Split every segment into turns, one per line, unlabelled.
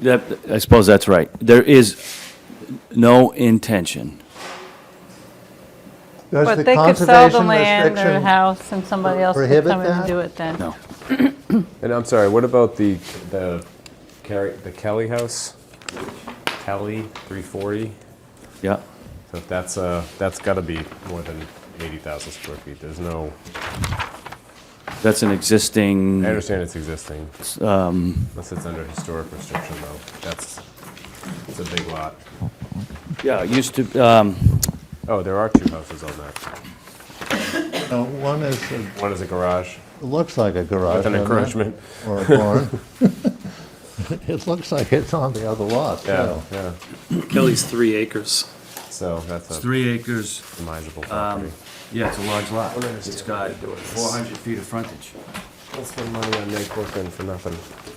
That, I suppose that's right. There is no intention.
Does
But
the
they could sell the
conservation
land or the
restriction,
house and somebody else could
prohibit
come in and
that?
do it then.
No.
And I'm sorry, what about the, the Carrie, the Kelly house? Kelly, 340?
Yeah.
So if that's, uh, that's gotta be more than 80,000 square feet. There's no,
That's an existing,
I
I
understand it's um, existing. Unless it's under historic restriction though. That's, it's a big lot.
yeah, it used to, um,
Oh, there are two houses on that.
No, Uh, one is, it
One is a garage
looks like a garage.
with an
doesn't it?
encroachment.
Or a barn. It looks like it's on the other lot,
Yeah,
too.
yeah.
Kelly's three acres.
So that's a
three acres.
demisable property.
Yeah, it's a large
Oh,
lot. It's got 400 feet of frontage.
Don't spend money on Nate Corcoran for nothing.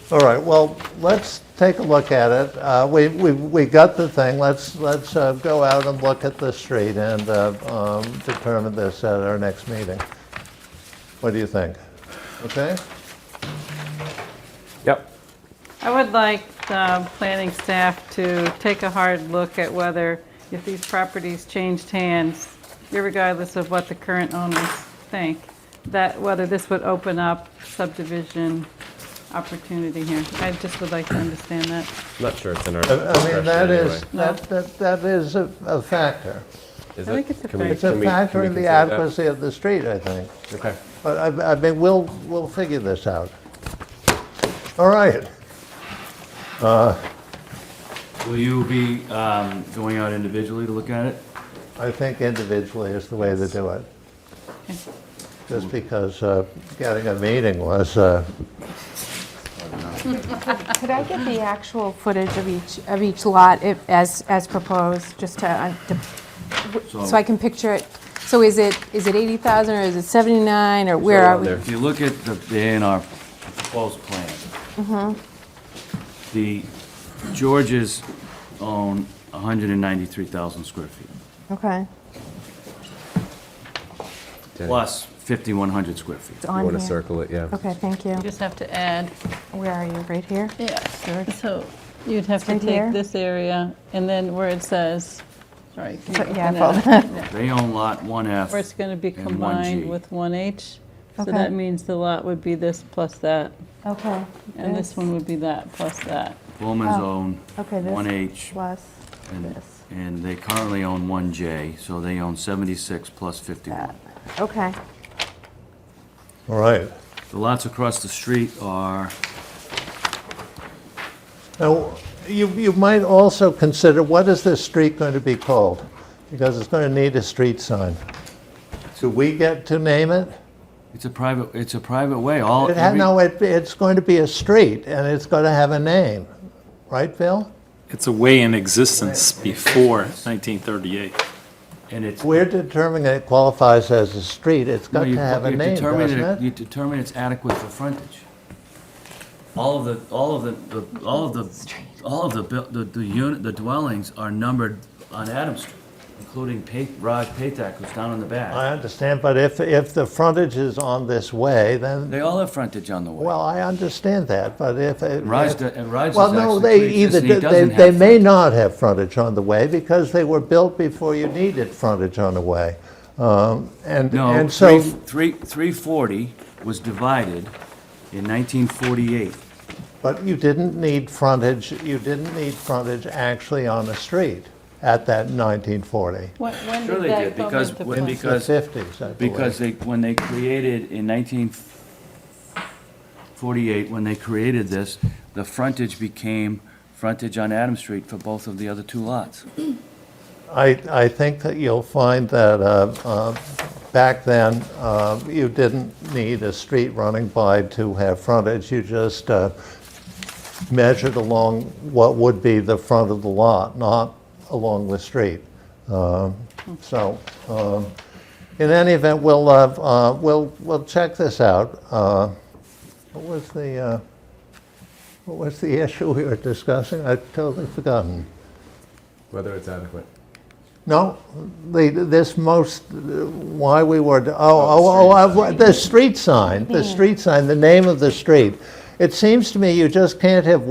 All right, well, let's take a look at it. Uh, We, we, we got the thing, let's, let's uh, go out and look at the street and uh, um, determine this at our next meeting. What do you think? Okay?
Yep.
I would like the planning staff to take a hard look at whether, if these properties changed hands, regardless of what the current owners think, that whether this would open up subdivision opportunity here. I just would like to understand that.
Not sure it's in our
I I mean,
discretion
that
anyway.
is, that, that that is a a factor.
Is
I
it?
think it's a
Can we-
fair-
It's a
can we-
factor
can we
in the
consider that?
adequacy of the street, I think.
Okay.
But I, I mean, we'll, we'll figure this out. All right.
Will you be um, going out individually to look at it?
I think individually is the way to do it. Just because uh, getting a meeting was, uh,
Could I get the actual footage of each, of each lot if- as, as proposed, just to, uh, to- so I can picture it? So is it, is it 80,000, or is it 79, or where are
around
we?
there.
If you look at the, the A and R proposed plan,
Mm-hmm.
the Georges own 193,000 square feet,
Okay,
Okay.
plus 5,100 square feet.
it's
You
on
want to
here.
circle it, yeah.
Okay, thank you.
You just have to add,
Where are you, right here?
yeah, so you'd have to
Right
take
here?
this area, and then where it says, sorry. can you
So-
open
yeah, I
that
followed
up?
They own lot 1F.
Or it's going to be
and 1G.
combined with 1H. So
Okay.
that means the lot would be this plus that,
Okay.
and this one would be that plus that.
Bowman's
Oh,
own
okay, this-
1H,
Plus
and,
this,
and they currently own 1J, so they own 76 plus 51.
that. Okay,
all right.
The lots across the street are,
Now, you, you might also consider, what is this street going to be called? Because it's going to need a street sign. Do we get to name it?
it's a private, it's a private way, all.
It had,
every-
no, it, it's going to be a street, and it's going to have a name, right, Bill?
It's a way in existence before 1938.
And it's.
We're determining it qualifies as a street, it's
No,
got to
you-
have a
you
name,
determine
doesn't
You
it?
determine it's adequate for frontage. All of the, all of the- the, all of the, all of the, buil- the, the unit, the dwellings are numbered on Adams Street, including Pa- Raj Patak, who's down in the
I
back.
understand, but if, if the frontage is on this way, then
They all have frontage on the way.
Well, I understand that, but if. it-
Raj
if-
do- and Raj
Well,
is
no,
actually
they
pre-existing.
either,
He
do- they,
doesn't have
they may
frontage.
not have frontage on the way because they were built before you needed frontage on the way. Um, And,
No,
and
three,
so,
three, three forty was divided in nineteen forty-eight.
but you didn't need frontage, you didn't need frontage actually on the street at that 1940.
When when
Sure they
did that
did,
come
because
into
when-
play?
because-
The 50s, I believe.
Because they, when they created in 1948, when they created this, the frontage became frontage on Adams Street for both of the other two lots.
I, I think that you'll find that uh, uh, back then, uh, you didn't need a street running by to have frontage. You just uh, measured along what would be the front of the lot, not along the street. Um, So, um, in any event, we'll, uh, uh, we'll, we'll check this out. Uh, What was the, uh, what was the issue we were discussing? I've totally forgotten.
Whether it's adequate.
No, the, this most, why we were, oh, oh, oh, I- the street sign, the street sign, the name of the street. It seems to me you just can't have